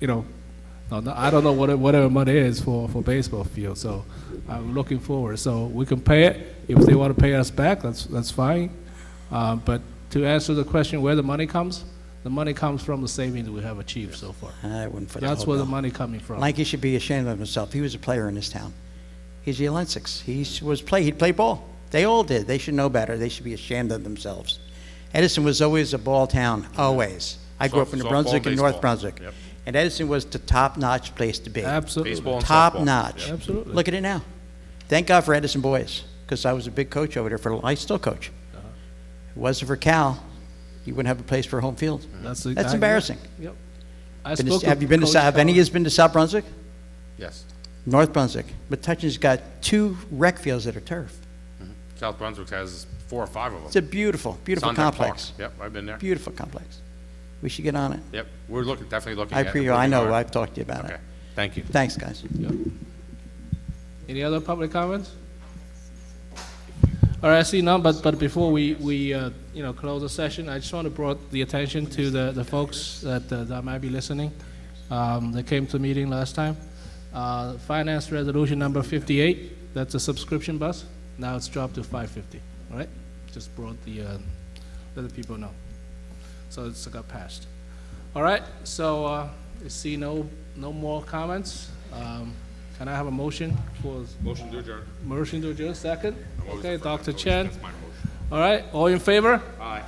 you know, uh, no- I don't know what it- whatever money is for, for baseball field, so I'm looking forward. So we can pay it, if they want to pay us back, that's, that's fine. Uh, But to answer the question where the money comes, the money comes from the savings we have achieved so far. I Uh, wouldn't put a That's hope where the no. money coming from. Lanky should be ashamed of himself. He was a player in this town. He's the Olympics. He was play. He'd play ball. They all did. They should know better. They should be ashamed of themselves. Edison was always a ball town. Always. I grew up in New Softball, Brunswick and North baseball. Brunswick, Yep. and Edison was the top-notch place to be. Absolutely. Baseball. and Top softball. notch. Yep. Absolutely. Look at it now. Thank God for Edison boys, because I was a big coach over there for. I still coach. Uh-huh. If it wasn't for Cal, you wouldn't have a place for home field. That's That's exactly- embarrassing. Yep. I Been to- spoke have with you been to? Coach Sou- Have any of Collins. you been to South Brunswick? Yes. North Brunswick. Metuchen's got two rec fields that are turf. South Brunswick has four or five of them. It's a beautiful, beautiful Sonnet Park. complex. Yep, I've been there. Beautiful complex. We should get on it. Yep, we're looking, definitely looking I at it. appreciate, I know, Working on I've it. talked to you about it. Okay, thank you. Thanks, guys. Any other public comments? All right, I see none, but, but before we, we, uh, you know, close the session, I just want to brought the attention to the, the folks that, uh, that might be listening, um, that came to the meeting last time. Uh, Finance Resolution Number 58, that's a subscription bus, now it's dropped to 550, all right? Just brought the, uh, let the people know. So it's got passed. All right, so uh, I see no, no more comments. Um, Can I have a motion for Motion to adjourn. Motion to adjourn, second. always Okay, the first. Dr. Always- Chen. That's my motion. All right, all in favor? Aye.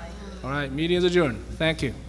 All right, meeting is adjourned. Thank you.